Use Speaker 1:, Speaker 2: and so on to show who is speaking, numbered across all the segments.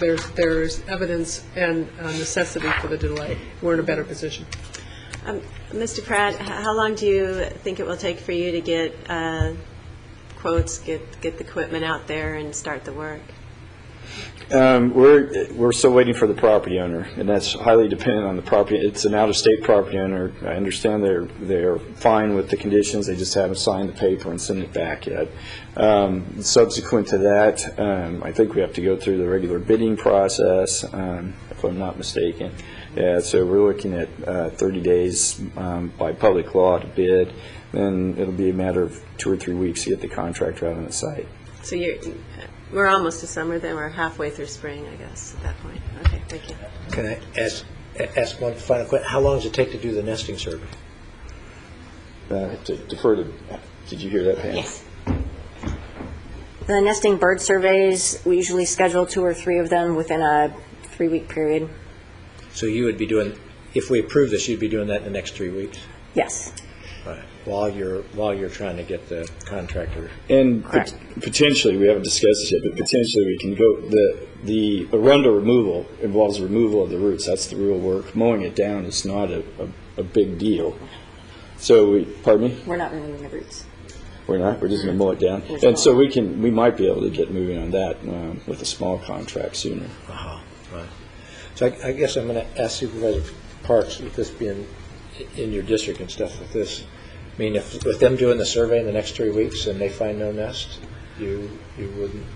Speaker 1: there's, there's evidence and uh, necessity for the delay, we're in a better position.
Speaker 2: Um, Mr. Pratt, h- how long do you think it will take for you to get uh, quotes, get, get the equipment out there and start the work?
Speaker 3: Um, We're, we're still waiting for the property owner, and that's highly dependent on the property, it's an out-of-state property owner. I understand they're, they're fine with the conditions, they just haven't signed the paper and sent it back yet. Um, Subsequent to that, um, I think we have to go through the regular bidding process, um, if I'm not mistaken. Yeah, so we're looking at uh, 30 days um, by public law to bid, then it'll be a matter of two or three weeks to get the contractor out on the site.
Speaker 2: So you're, we're almost to summer then, we're halfway through spring, I guess, at that point. Okay, thank you.
Speaker 4: Can I ask, ask one final question? How long does it take to do the nesting survey?
Speaker 3: Uh, to Defer to, did you hear that, Pam?
Speaker 5: Yes. The nesting bird surveys, we usually schedule two or three of them within a three-week period.
Speaker 4: So you would be doing, if we approve this, you'd be doing that in the next three weeks?
Speaker 5: Yes.
Speaker 4: All right. While you're, while you're trying to get the contractor,
Speaker 3: And pot-
Speaker 5: Correct.
Speaker 3: potentially, we haven't discussed this yet, but potentially we can go, the, the arundel removal involves removal of the roots, that's the real work. Mowing it down is not a, a, a big deal. So, we pardon me?
Speaker 5: We're not removing the roots.
Speaker 3: We're not, we're just gonna mow it down. And so we can, we might be able to get moving on that um, with a small contract sooner.
Speaker 4: uh-huh, right. So I I guess I'm going to ask Supervisor Parks, with this being in your district and stuff with this, I mean, if, with them doing the survey in the next three weeks and they find no nest, you, you wouldn't,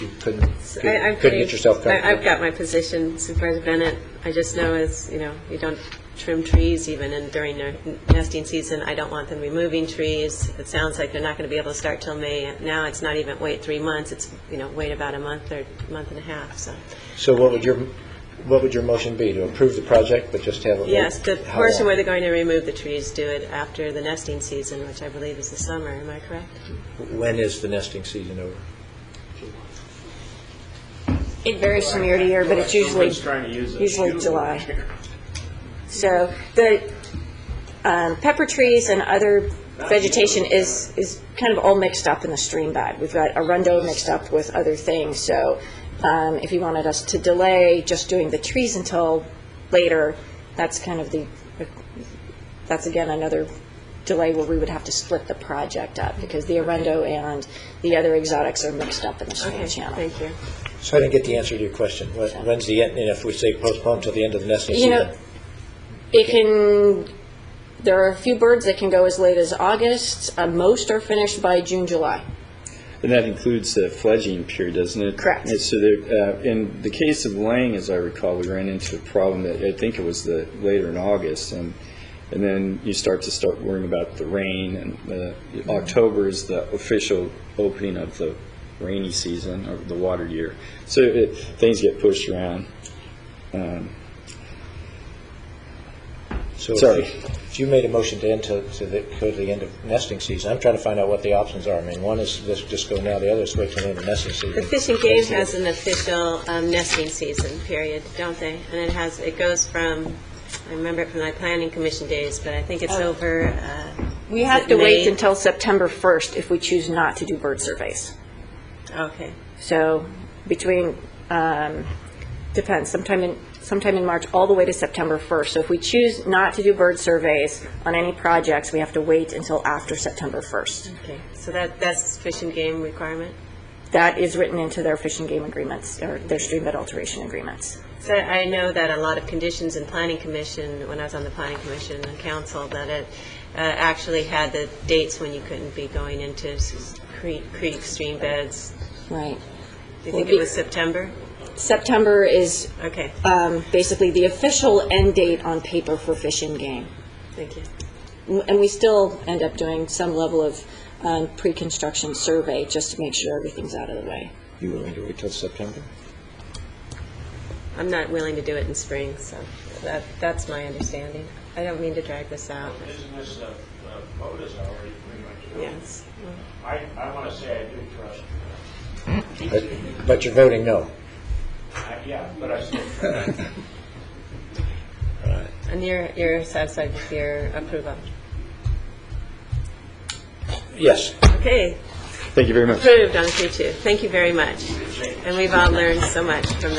Speaker 4: you couldn't,
Speaker 2: I- I'm
Speaker 4: couldn't get
Speaker 2: pretty-
Speaker 4: yourself
Speaker 2: I-
Speaker 4: comfortable?
Speaker 2: I've got my position, Supervisor Bennett. I just know is, you know, you don't trim trees even in during their nesting season. I don't want them removing trees. It sounds like they're not going to be able to start till May. Now, it's not even wait three months, it's, you know, wait about a month or month and a half, so.
Speaker 4: So what would your, what would your motion be? To approve the project, but just have it?
Speaker 2: Yes, the
Speaker 4: how
Speaker 2: portion
Speaker 4: long?
Speaker 2: where they're going to remove the trees, do it after the nesting season, which I believe is the summer, am I correct?
Speaker 4: When is the nesting season over?
Speaker 5: It varies from year to year, but it's usually, usually July. So the um, pepper trees and other vegetation is, is kind of all mixed up in the stream bed. We've got arundo mixed up with other things, so um, if you wanted us to delay just doing the trees until later, that's kind of the, that's again another delay where we would have to split the project up, because the arundo and the other exotics are mixed up in the stream
Speaker 2: Okay,
Speaker 5: channel.
Speaker 2: thank you.
Speaker 4: So I didn't get the answer to your question. When- When's the end, and if we say postpone till the end of the nesting
Speaker 5: You know-
Speaker 4: season?
Speaker 5: It can, there are a few birds that can go as late as August. Uh, Most are finished by June, July.
Speaker 3: And that includes the fledging period, doesn't it?
Speaker 5: Correct.
Speaker 3: And so there, uh, in the case of Lang, as I recall, we ran into a problem that, I think it was the, later in August, and, and then you start to start worrying about the rain, and, uh, October is the official opening of the rainy season, or the water year. So it, things get pushed around. Um,
Speaker 4: So if
Speaker 3: Sorry.
Speaker 4: you- If you made a motion to end to, to the, go to the end of nesting season, I'm trying to find out what the options are. I mean, one is let's just go now, the other is wait till the end of nesting
Speaker 2: The
Speaker 4: season.
Speaker 2: Fish and Game has an official um, nesting season period, don't they? And it has, it goes from, I remember it from my planning commission days, but I think it's over, uh,
Speaker 5: Oh. We have to wait
Speaker 2: May.
Speaker 5: until September 1st if we choose not to do bird surveys.
Speaker 2: okay.
Speaker 5: So between, um, depends, sometime in, sometime in March, all the way to September 1st. So if we choose not to do bird surveys on any projects, we have to wait until after September 1st.
Speaker 2: Okay, so that, that's Fish and Game requirement?
Speaker 5: That is written into their fish and game agreements, or their stream bed alteration agreements.
Speaker 2: So I know that a lot of conditions in planning commission, when I was on the planning commission and council, that it uh, actually had the dates when you couldn't be going into s- creek, creek stream beds.
Speaker 5: Right.
Speaker 2: Do you think it was September?
Speaker 5: September is
Speaker 2: Okay,
Speaker 5: um, basically the official end date on paper for fish and game.
Speaker 2: thank you.
Speaker 5: And we still end up doing some level of um, pre-construction survey just to make sure everything's out of the way.
Speaker 4: You willing to wait till September?
Speaker 2: I'm not willing to do it in spring, so that, that's my understanding. I don't mean to drag this out.
Speaker 6: Isn't this, the the vote uh, is already pretty much done?
Speaker 2: Yes.
Speaker 6: I, I want to say I do trust
Speaker 4: But- But you're voting no.
Speaker 6: you. I- Yeah, but I still,
Speaker 2: And you're, you're satisfied with your approval?
Speaker 4: Yes.
Speaker 2: Okay,
Speaker 3: Thank you very much.
Speaker 2: approved on three two. Thank you very much. And we've all learned so much from